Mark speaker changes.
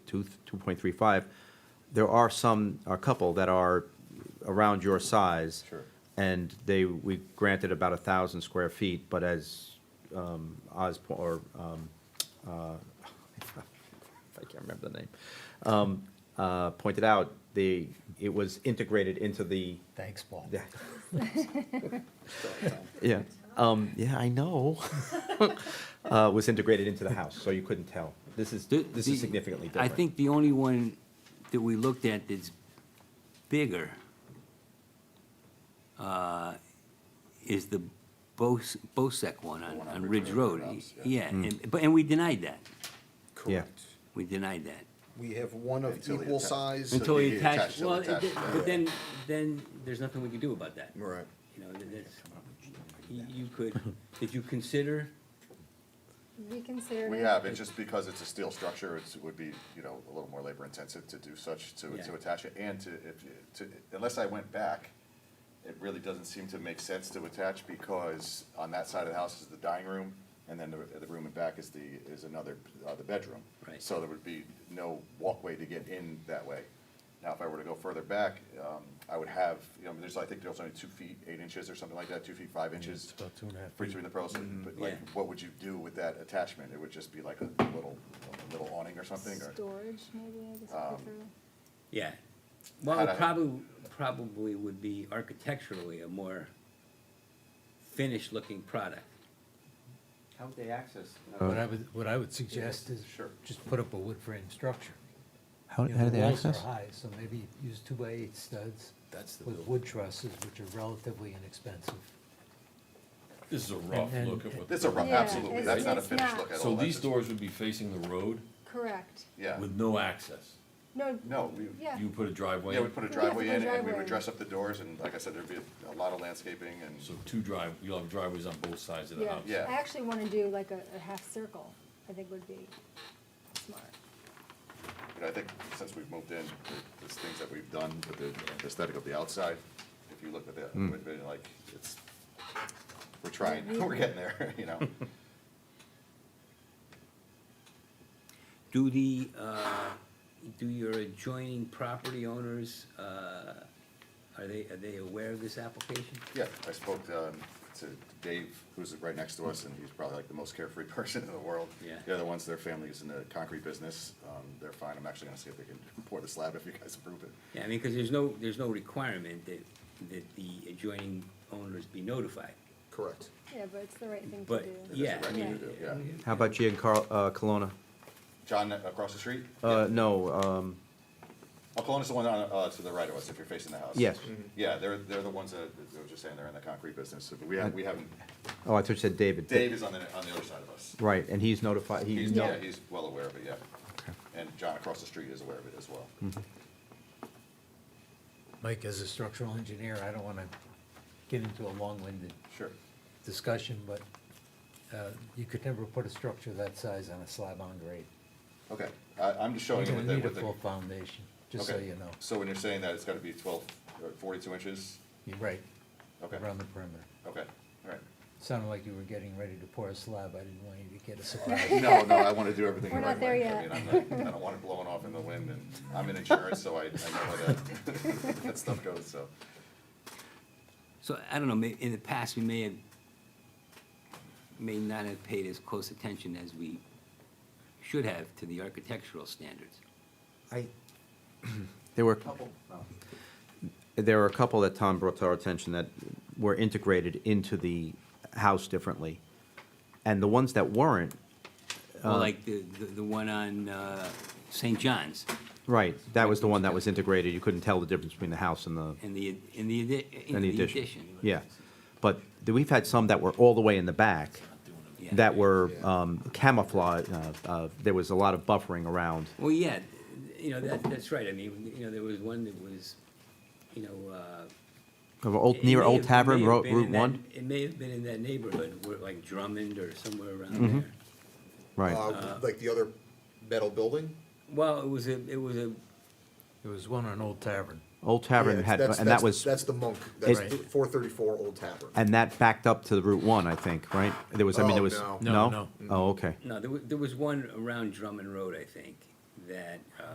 Speaker 1: two, two point three five, there are some, a couple that are around your size.
Speaker 2: Sure.
Speaker 1: And they, we granted about a thousand square feet, but as, um, Oz, po- or, um, uh, I can't remember the name, um, uh, pointed out, the, it was integrated into the,
Speaker 3: Thanks, Paul.
Speaker 1: yeah. Yeah, um, yeah, I know. Uh, was integrated into the house, so you couldn't tell. This is,
Speaker 4: The-
Speaker 1: this
Speaker 4: the-
Speaker 1: is significantly
Speaker 4: I
Speaker 1: different.
Speaker 4: think the only one that we looked at that's bigger uh, is the Bos- Bosec one on,
Speaker 2: one on
Speaker 4: on
Speaker 2: Ridge
Speaker 4: Ridge
Speaker 2: Road,
Speaker 4: Road.
Speaker 2: perhaps,
Speaker 4: Yeah, and, but, and we denied that.
Speaker 1: Yeah.
Speaker 2: Correct.
Speaker 4: We denied that.
Speaker 3: We have one of
Speaker 2: Until he
Speaker 3: equal
Speaker 2: atta-
Speaker 3: size.
Speaker 2: Until
Speaker 4: Until
Speaker 2: he
Speaker 4: we
Speaker 2: attached
Speaker 4: attached,
Speaker 2: it,
Speaker 4: well,
Speaker 2: attached
Speaker 4: it-
Speaker 2: it, yeah.
Speaker 4: but then, then there's nothing we can do about that.
Speaker 2: Right.
Speaker 4: You know, that- that's- you you could, did you consider,
Speaker 5: We consider it.
Speaker 2: We have, it's just because it's a steel structure, it's, it would be, you know, a little more labor intensive to do such, to, to
Speaker 4: Yeah.
Speaker 2: attach it, and to, if, you- to, unless I went back, it really doesn't seem to make sense to attach, because on that side of the house is the dining room, and then the, the room in back is the, is another, uh, the bedroom.
Speaker 4: Right.
Speaker 2: So there would be no walkway to get in that way. Now, if I were to go further back, um, I would have, you know, there's, I think there's only two feet, eight inches or something like that, two feet, five inches.
Speaker 3: about two and a half feet.
Speaker 2: Between the person, but like,
Speaker 4: Yeah.
Speaker 2: what would you do with that attachment? It would just be like a little, a Um, little awning or something, or?
Speaker 5: Storage, maybe, I guess, would be through.
Speaker 4: yeah.
Speaker 2: Had
Speaker 4: Well,
Speaker 2: I-
Speaker 4: it probably, probably would be architecturally a more finished-looking product.
Speaker 1: How would they access?
Speaker 6: What I would, what I would suggest is
Speaker 2: Sure.
Speaker 6: just put up a wood frame structure.
Speaker 1: How,
Speaker 6: You know, the walls are High, so maybe use two by eight studs.
Speaker 3: That's the
Speaker 6: With
Speaker 3: build.
Speaker 6: wood trusses, which are relatively inexpensive.
Speaker 7: This is a rough
Speaker 6: And-
Speaker 7: look at what.
Speaker 2: That's a rough,
Speaker 5: Yeah,
Speaker 2: absolutely,
Speaker 5: it's-
Speaker 2: that's not a
Speaker 5: it's
Speaker 2: finished
Speaker 5: not.
Speaker 2: look at all.
Speaker 7: So
Speaker 2: That's
Speaker 7: these
Speaker 2: just-
Speaker 7: doors would be facing the road
Speaker 5: Correct.
Speaker 2: Yeah,
Speaker 7: with no access.
Speaker 5: No,
Speaker 2: no, we,
Speaker 5: yeah.
Speaker 7: You put a driveway,
Speaker 2: yeah, we put a
Speaker 5: Yeah,
Speaker 2: driveway
Speaker 5: put a
Speaker 2: in, and we
Speaker 5: driveway
Speaker 2: would
Speaker 5: in.
Speaker 2: dress up the doors, and like I said, there'd be a- a lot of landscaping and,
Speaker 7: so two drive, you'll have driveways on both sides of the
Speaker 5: yeah.
Speaker 7: house.
Speaker 2: Yeah.
Speaker 5: I actually wanna do like a, a half circle, I think would be smart.
Speaker 2: but I think since we've moved in, there- there's things that we've done with the the aesthetic of the outside. If you look at that,
Speaker 7: Hmm.
Speaker 2: it would be like, it's, we're trying, we're getting there, you know?
Speaker 4: Do the, uh, do your adjoining property owners, uh, are they, are they aware of this application?
Speaker 2: Yeah, I spoke um, to Dave, who's right next to us, and he's probably like the most carefree person in the world.
Speaker 4: Yeah.
Speaker 2: The other ones, their family is in the concrete business, um, they're fine, I'm actually gonna see if they can pour the slab if you guys approve it.
Speaker 4: Yeah, I mean, because there's no, there's no requirement that, that the adjoining owners be notified.
Speaker 2: Correct.
Speaker 5: Yeah, but it's the right thing to
Speaker 4: But,
Speaker 5: do.
Speaker 2: It
Speaker 4: yeah.
Speaker 2: is
Speaker 5: Yeah.
Speaker 2: right to do, yeah.
Speaker 1: How about Giancarlo, uh, Colonna?
Speaker 2: John, across the street?
Speaker 1: Uh, no, um,
Speaker 2: Oh, Colonna's the one on, uh, to the right of us, if you're facing the house.
Speaker 1: Yes.
Speaker 6: Mm-hmm.
Speaker 2: Yeah, they're, they're the ones that, I was just saying, they're in the concrete business, but we haven't, we haven't,
Speaker 1: oh, I thought you said David.
Speaker 2: Dave is on the, on the other side of us.
Speaker 1: Right, and he's notified, he,
Speaker 2: He's,
Speaker 1: no-
Speaker 2: yeah, he's well aware of it, yeah. And John across the street is aware of it as well.
Speaker 1: Mm-hmm.
Speaker 6: Mike, as a structural engineer, I don't wanna get into a long-winded
Speaker 2: Sure.
Speaker 6: discussion, but, uh, you could never put a structure that size on a slab on grade.
Speaker 2: Okay, I, I'm just
Speaker 6: You're
Speaker 2: showing you
Speaker 6: gonna
Speaker 2: with the,
Speaker 6: need a
Speaker 2: with the.
Speaker 6: full foundation, just so
Speaker 2: Okay.
Speaker 6: you know.
Speaker 2: So when you're saying that, it's gotta be twelve, or forty-two inches?
Speaker 6: You're right,
Speaker 2: Okay,
Speaker 6: around the perimeter.
Speaker 2: okay, all right.
Speaker 6: Sounded like you were getting ready to pour a slab, I didn't want you to get a surprise.
Speaker 2: No, no, I wanna do everything the
Speaker 5: We're
Speaker 2: right
Speaker 5: not there
Speaker 2: way. I
Speaker 5: yet.
Speaker 2: mean, I'm not, I don't want it blowing off in the wind, and I'm in insurance, so I, I know how that, that stuff goes, so.
Speaker 4: So, I don't know, may, in the past, we may have, may not have paid as close attention as we should have to the architectural standards.
Speaker 1: I, there were, there were a couple that Tom brought to our attention that were integrated into the house differently. And the ones that weren't,
Speaker 4: Well, like the, the, the one on, uh, St. John's,
Speaker 1: right, that was the one that was integrated, you couldn't tell the difference between the house and the,
Speaker 4: in the, in the, addi- in
Speaker 1: and
Speaker 4: the
Speaker 1: the
Speaker 4: addition.
Speaker 1: addition. Yeah, but th- we've had some that were all the way in the back,
Speaker 4: Yeah.
Speaker 1: that were um, camouflage, uh, uh, there was a lot of buffering around.
Speaker 4: Well, yeah, you know, that, that's right, I mean, you know, there was one that was, you know, uh.
Speaker 1: Of
Speaker 4: it
Speaker 1: Old, near
Speaker 4: may
Speaker 1: Old
Speaker 4: have- it
Speaker 1: Tavern,
Speaker 4: may have
Speaker 1: Ro-
Speaker 4: been
Speaker 1: Route
Speaker 4: in that-
Speaker 1: One,
Speaker 4: It may have been in that neighborhood, where like Drummond or somewhere
Speaker 1: Mm-hmm.
Speaker 4: around there.
Speaker 1: right,
Speaker 8: Uh, Like the other metal building?
Speaker 4: Well, it was a, it was a,
Speaker 6: There was one on Old Tavern.
Speaker 1: Old Tavern
Speaker 8: Yeah,
Speaker 1: had,
Speaker 8: that's-
Speaker 1: and that
Speaker 8: that's-
Speaker 1: was,
Speaker 8: That's the Monk, that's
Speaker 1: It-
Speaker 8: the four thirty-four Old Tavern.
Speaker 1: and that backed up to the Route One, I think, right? There was, I mean,
Speaker 8: Oh,
Speaker 1: there was,
Speaker 8: no.
Speaker 6: No,
Speaker 1: no? Oh, okay,
Speaker 4: no, there was, there was one around Drummond Road, I think, that, uh,